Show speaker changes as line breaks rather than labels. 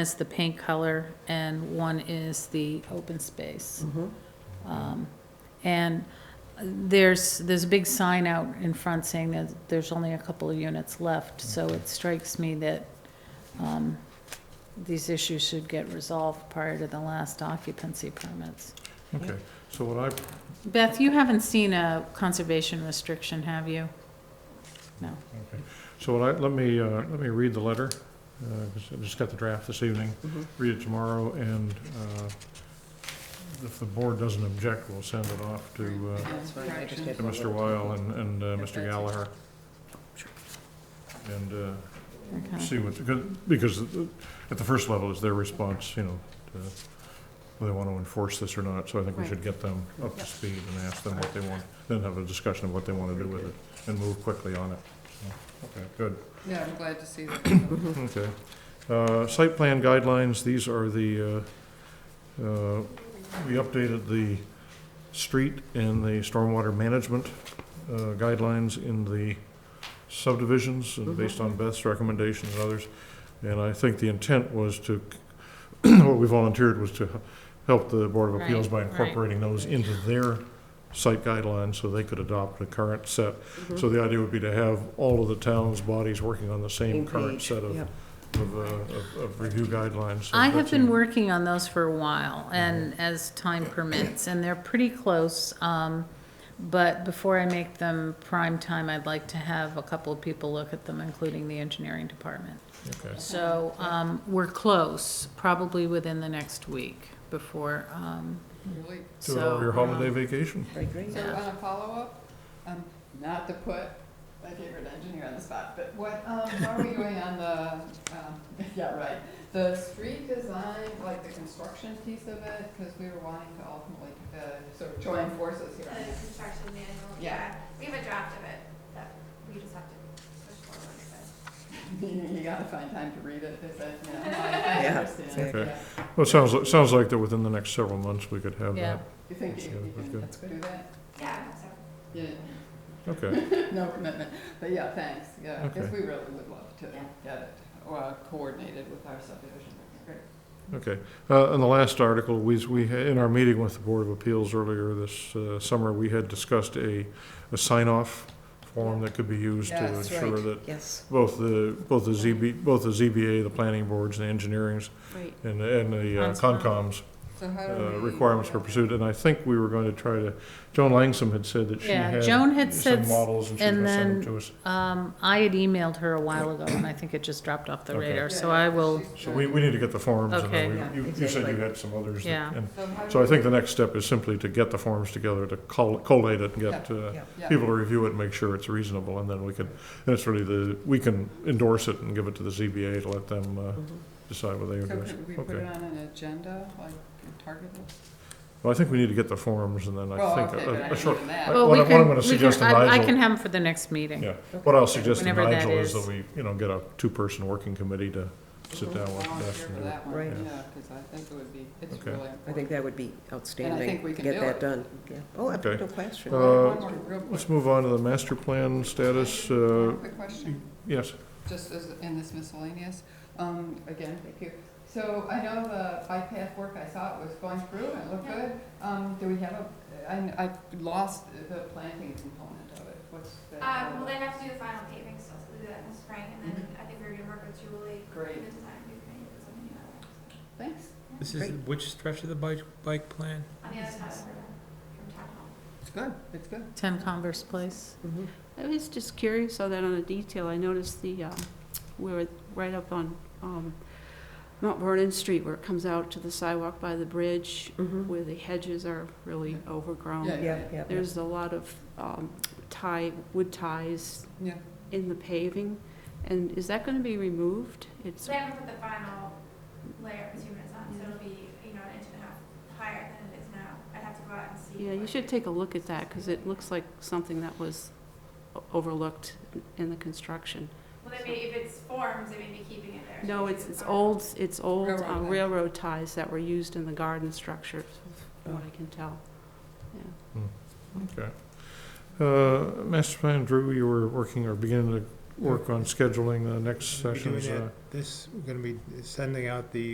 is the paint color and one is the open space.
Mm-hmm.
Um, And there's, there's a big sign out in front saying that there's only a couple of units left, so it strikes me that um, these issues should get resolved prior to the last occupancy permits.
Okay, so what
Beth, you haven't seen a conservation restriction, have you? No.
I, okay, so what I, let me, uh, let me read the letter, uh, 'cause I just got the draft this evening,
Mhm.
read it tomorrow, and, uh, if the board doesn't object, we'll send it off to, uh,
That's fine, I
Correction.
just had
to
one
Mr.
little-
Weil and, and, uh, Mr. Gallagher.
Sure.
And, uh,
Okay.
see what, because at the first level is their response, you know, to whether they want to enforce this or not, so I think we should get them up to
Yep.
speed and ask them what they want, then have a discussion of what they want to do with it, and move quickly on it. So, Okay, good.
Yeah, I'm glad to see that.
Mm-hmm.
Okay. Uh, Site plan guidelines, these are the, uh, uh, we updated the street and the stormwater management uh, guidelines in the subdivisions, and based
Mm-hmm.
on Beth's recommendations and others. And I think the intent was to, what we volunteered was to help the Board of Appeals by
Right, right.
incorporating those into their site guidelines, so they could adopt the current set.
Mm-hmm.
So the idea would be to have all of the town's bodies working on the same
Same
current
page,
set of
yep.
of, uh, of- of review guidelines. so
I have
that's
been
in-
working on those for a while, and
Mm-hmm.
as time permits, and they're pretty close. um, But before I make them prime time, I'd like to have a couple of people look at them, including the engineering department.
Okay,
So um, we're close, probably within the next week before, um,
Really.
do
so. um,
it over your holiday vacation.
Right, great.
So
Yeah.
on a follow-up, um, not to put my favorite engineer on the spot, but what, um, how are we doing on the, um, yeah, right. The street design, like the construction piece of it, because we were wanting to ultimately, uh, sort of join forces here.
The
on this.
construction manual,
Yeah.
yeah, we have a draft of it that we just have to push forward, but
You you gotta find time to read it, is it, you know, I- I
Yeah.
understand,
Okay.
yeah.
Well, it sounds, it sounds like that within the next several months, we could have
Yeah.
that.
You think
That's
you
good,
you
that's
can
good.
do that?
yeah, I hope so.
Yeah,
Okay,
no commitment, but yeah, thanks, yeah, because
Okay.
we really would love to
Yeah.
get it, or coordinated with our subdivision, great.
okay. Uh, And the last article, we, we, ha- in our meeting with the Board of Appeals earlier this uh, summer, we had discussed a, a sign-off form that could be used to
Yes,
ensure
right.
that
Yes,
both the, both the ZB, both the ZBA, the planning boards, and the engineerings,
right.
and, and the uh,
Conscom.
concoms
So how do
Oh,
uh,
we?
requirements were pursued, and I think we were going to try to, Joan Langsom had said that she
Yeah,
had
Joan had
some
said-
models and she was
and
gonna send them
then-
to us.
Um, I had emailed her a while ago, and I think it just dropped off the
Okay.
radar,
Yeah,
so
yeah,
I will,
she's
So we, we need to get the forms, and
Okay.
then
Yeah,
we- you, you said you
exactly.
had some others. that-
Yeah.
and
So how do
So I
we-
think the next step is simply to get the forms together, to col- collate it and get, uh,
Yeah.
yeah.
people to review it and make sure it's reasonable, and then we can, and it's really the, we can endorse it and give it to the ZBA to let them, uh,
Mm-hmm.
decide what they
So
endorse.
could we put
okay.
it on an agenda, like a target list?
Well, I think we need to get the forms, and then I
Well,
think
okay,
a-
but I
a, a
mean,
short,
even that.
I-
well,
what
we
I- what I'm
can,
gonna
we
suggest
can,
to
I, I
Nigel-
can have them for the next meeting.
Yeah, what I'll suggest to
Whenever that
Nigel is
is.
that we, you know, get a two-person working committee to sit down with Beth
Volunteer
and
for
do it.
that one,
Right.
yeah, because I think it would be, it's
Okay.
really
I think
important.
that would be outstanding,
we
to
can
get
do
that
it.
done. Yeah. Oh, I-
Okay.
no question.
Uh,
One more real quick-
Let's move on to the master plan status, uh,
quick question.
yes,
just as in this miscellaneous, um, again, thank you. So I know the bike path work, I saw it was going through and it looked good. Um, do we have a, I, I lost the planting component of it, what's that?
Uh, well, they have to do the final paving still, so we'll do that in the spring, and then I think we're gonna work with Julie.
Mm-hmm. Great.
in the design committee or something like that, so.
Thanks.
This is
Great.
which stretch of the bike, bike plan?
On the other side of the river, from town hall.
It's good, it's good.
Ten Converse Place.
Mhm.
I was just curious on that on the detail. I noticed the, um, where, it- right up on um, Mount Vernon Street where it comes out to the sidewalk by the bridge,
Mhm.
where the hedges are really
Yeah,
overgrown.
Yeah, yeah, yeah.
There's a lot of um, tie, wood ties
Yeah,
in the paving. And is that going to be removed? It's,
So they haven't put the final layer of two minutes on, so it'll be, you know, an inch and a half higher than it is now. I'd have to go out and see.
yeah, you
what-
should take a look at that because it looks like something that was o- overlooked in the construction.
Well, they may, if it's forms, they may be keeping it there.
No, it's, it's old, it's old uh,
Railroad ties.
railroad ties that were used in the garden structures, from what I can tell. Yeah.
okay. Uh, master plan, Drew, you were working or beginning to work on scheduling the next
We're
session's,
doing
uh,
This, we're gonna be sending out the